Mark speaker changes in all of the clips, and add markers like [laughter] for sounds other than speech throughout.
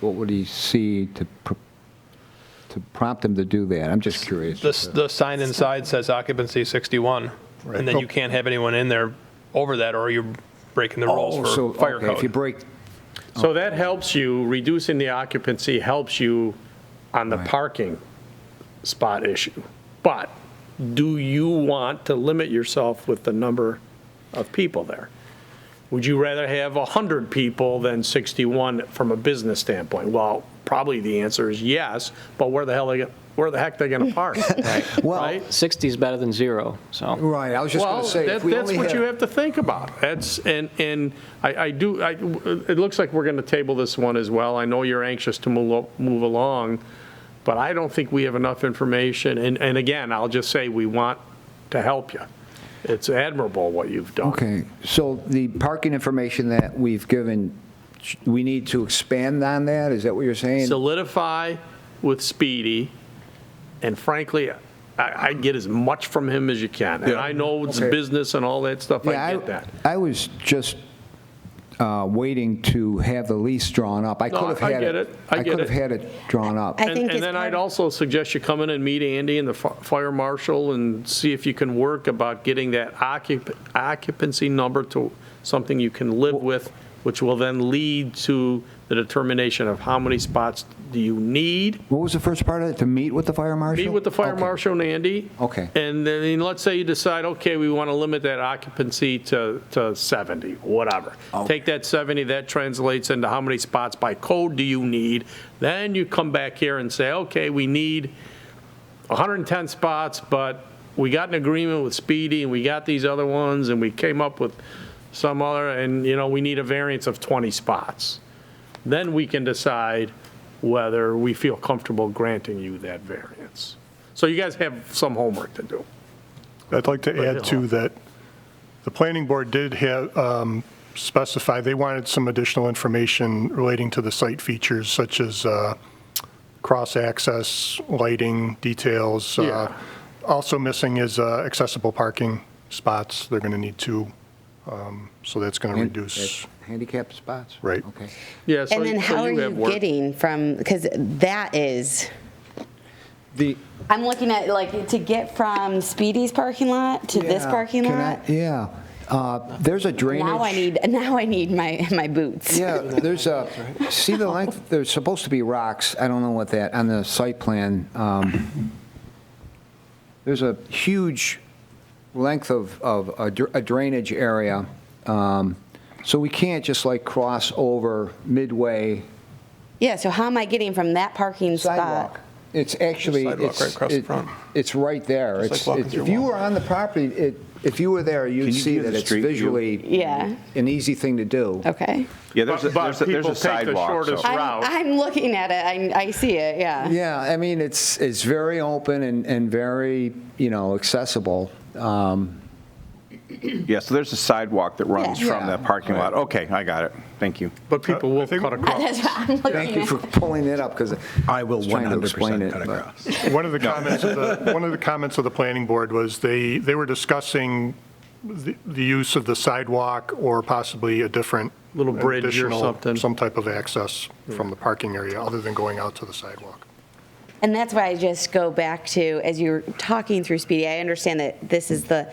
Speaker 1: what would he see to, pr- to prompt him to do that? I'm just curious.
Speaker 2: The, the sign inside says occupancy 61, and
Speaker 1: Oh.
Speaker 2: then you can't have anyone in there over that, or you're breaking the
Speaker 1: Oh,
Speaker 2: rules
Speaker 1: so,
Speaker 2: for fire
Speaker 1: okay, if you
Speaker 2: code.
Speaker 1: break,
Speaker 3: So that helps you, reducing the occupancy helps you on the parking spot issue. But do you want to limit yourself with the number of people there? Would you rather have 100 people than 61 from a business standpoint? Well, probably the answer is yes, but where the hell, they- where the heck they going to park?
Speaker 1: well,
Speaker 3: Right?
Speaker 4: 60 is better than zero, so.
Speaker 1: right, I was just going
Speaker 3: Well,
Speaker 1: to say,
Speaker 3: that-
Speaker 1: if we
Speaker 3: that's
Speaker 1: only
Speaker 3: what you
Speaker 1: had,
Speaker 3: have to think about. That's, and, and I, I do, I, it looks like we're going to table this one as well. I know you're anxious to move, al- move along, but I don't think we have enough information. And, and again, I'll just say, we want to help you. It's admirable what you've done.
Speaker 1: okay, so the parking information that we've given, sh- we need to expand on that? Is that what you're saying?
Speaker 3: Solidify with Speedy, and frankly, I, I get as much from him as you can. And I know it's
Speaker 1: Okay.
Speaker 3: business and all that stuff,
Speaker 1: Yeah,
Speaker 3: I get that.
Speaker 1: I was just uh, waiting to have the lease drawn up. I
Speaker 3: No,
Speaker 1: could have
Speaker 3: I
Speaker 1: had
Speaker 3: get
Speaker 1: it.
Speaker 3: it. I get
Speaker 1: could have
Speaker 3: it.
Speaker 1: had it drawn up.
Speaker 5: I-
Speaker 3: And-
Speaker 5: think
Speaker 3: And
Speaker 5: it's
Speaker 3: then
Speaker 5: part
Speaker 3: I'd
Speaker 5: of-
Speaker 3: also suggest you come in and meet Andy and the fi- fire marshal and see if you can work about getting that occup- occupancy number to something you can live with, which will then lead to the determination of how many spots do you need.
Speaker 1: What was the first part of it? To meet with the fire marshal?
Speaker 3: Meet with the fire
Speaker 1: Okay.
Speaker 3: marshal and Andy.
Speaker 1: Okay.
Speaker 3: And then, let's say you decide, okay, we want to limit that occupancy to, to 70, whatever. Take that 70, that translates into how many spots by code do you need? Then you come back here and say, okay, we need 110 spots, but we got an agreement with Speedy, and we got these other ones, and we came up with some other, and, you know, we need a variance of 20 spots. Then we can decide whether we feel comfortable granting you that variance. So you guys have some homework to do.
Speaker 6: I'd like to add to that, the planning board did have, um, specify, they wanted some additional information relating to the site features such as uh, cross-access, lighting, details. uh,
Speaker 3: Yeah.
Speaker 6: Also missing is uh, accessible parking spots. They're going to need two, um, so that's going to
Speaker 1: And-
Speaker 6: reduce.
Speaker 1: Handicap spots?
Speaker 6: Right.
Speaker 1: Okay.
Speaker 3: Yeah, so
Speaker 5: And then
Speaker 3: so
Speaker 5: how are
Speaker 3: have
Speaker 5: you
Speaker 3: work.
Speaker 5: getting from, because that is,
Speaker 1: The,
Speaker 5: I'm looking at, like, to get from Speedy's parking lot to this
Speaker 1: Yeah,
Speaker 5: parking
Speaker 1: can I-
Speaker 5: lot,
Speaker 1: Yeah. Uh, There's a drainage.
Speaker 5: now I need, now I need my, my boots.
Speaker 1: Yeah, there's a, see the length, there's supposed to be rocks, I don't know what that, on the site plan. um, There's a huge length of, of a dr- a drainage area. um, So we can't just like cross over midway
Speaker 5: Yeah, so how am I getting from that parking spot?
Speaker 1: sidewalk. It's actually,
Speaker 2: Sidewalk right
Speaker 1: it's,
Speaker 2: across the
Speaker 1: it-
Speaker 2: front.
Speaker 1: it's right there.
Speaker 7: It's like
Speaker 1: It's,
Speaker 7: walking
Speaker 1: it's-
Speaker 7: through
Speaker 1: if you
Speaker 7: Walmart.
Speaker 1: were on the property, it, if you were there, you'd
Speaker 7: Can you
Speaker 1: see
Speaker 7: do
Speaker 1: that
Speaker 7: the
Speaker 1: it's
Speaker 7: street view?
Speaker 1: visually
Speaker 5: Yeah.
Speaker 1: an easy thing to do.
Speaker 5: Okay.
Speaker 7: Yeah, there's a,
Speaker 3: But- but
Speaker 7: there's a, there's
Speaker 3: people
Speaker 7: a
Speaker 3: take the
Speaker 7: sidewalk.
Speaker 3: shortest
Speaker 7: so-
Speaker 5: I'm,
Speaker 3: Route.
Speaker 5: I'm looking at it, I, I see it, yeah.
Speaker 1: Yeah, I mean, it's, it's very open and, and very, you know, accessible. Um,
Speaker 7: Yeah, so there's a sidewalk that runs
Speaker 5: Yeah.
Speaker 7: from that parking lot. Okay, I got it. Thank you.
Speaker 3: But people will
Speaker 6: I think-
Speaker 3: cut across.
Speaker 5: That's what I'm looking
Speaker 1: Thank you
Speaker 5: at.
Speaker 1: for pulling that up, because
Speaker 8: I will
Speaker 1: trying to explain
Speaker 8: 100%
Speaker 1: it,
Speaker 8: cut
Speaker 1: but-
Speaker 8: across.
Speaker 6: One of the comments, of the- one of the comments of the planning board was they, they were discussing the the use of the sidewalk or possibly a different.
Speaker 3: Little bridge or
Speaker 6: additional-
Speaker 3: something. Hmm.
Speaker 6: Some type of access from the parking area, other than going out to the sidewalk.
Speaker 5: And that's why I just go back to, as you're talking through Speedy, I understand that this is the,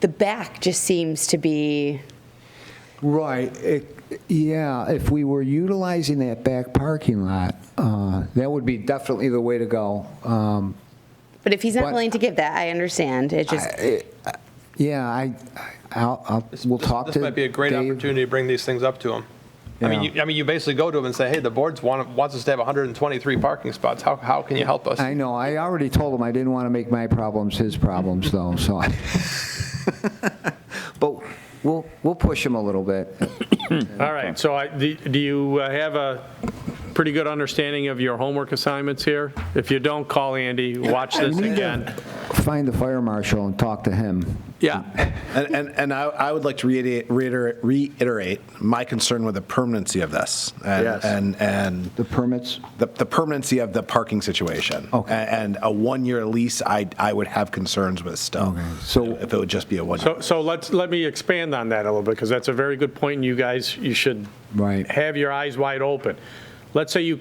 Speaker 5: the back just seems to be,
Speaker 1: Right, it- yeah, if we were utilizing that back parking lot, uh, that would be definitely the way to go. Um,
Speaker 5: but if he's not
Speaker 1: But-
Speaker 5: willing to give that, I understand. It just,
Speaker 1: I- I- Yeah, I, I'll, I'll- we'll
Speaker 2: This-
Speaker 1: talk to
Speaker 2: This might be a great
Speaker 1: Dave.
Speaker 2: opportunity to bring these things up to them. I mean,
Speaker 1: Yeah.
Speaker 2: you, I mean, you basically go to them and say, hey, the board's want, wants us to have 123 parking spots. How, how can you help us?
Speaker 1: I know, I already told him I didn't want to make my problems his problems,
Speaker 2: [laughs]
Speaker 1: though, so I, [laughs] but we'll, we'll push him a little bit.
Speaker 3: All right, so I, do do you uh, have a pretty good understanding of your homework assignments here? If you don't, call Andy, watch this again.
Speaker 1: Find the fire marshal and talk to him.
Speaker 3: Yeah,
Speaker 8: And, and, and I, I would like to reiterate, reiterate, reiterate my concern with the permanency of this. And,
Speaker 3: Yes.
Speaker 8: And, and
Speaker 1: The permits?
Speaker 8: the, the permanency of the parking situation.
Speaker 1: Okay.
Speaker 8: A- And a one-year lease, I, I would have concerns with still.
Speaker 1: So-
Speaker 8: If it would just be a one-year.
Speaker 3: So, so let's, let me expand on that a little bit, because that's a very good point, and you guys, you should
Speaker 1: Right.
Speaker 3: have your eyes wide open. Let's say you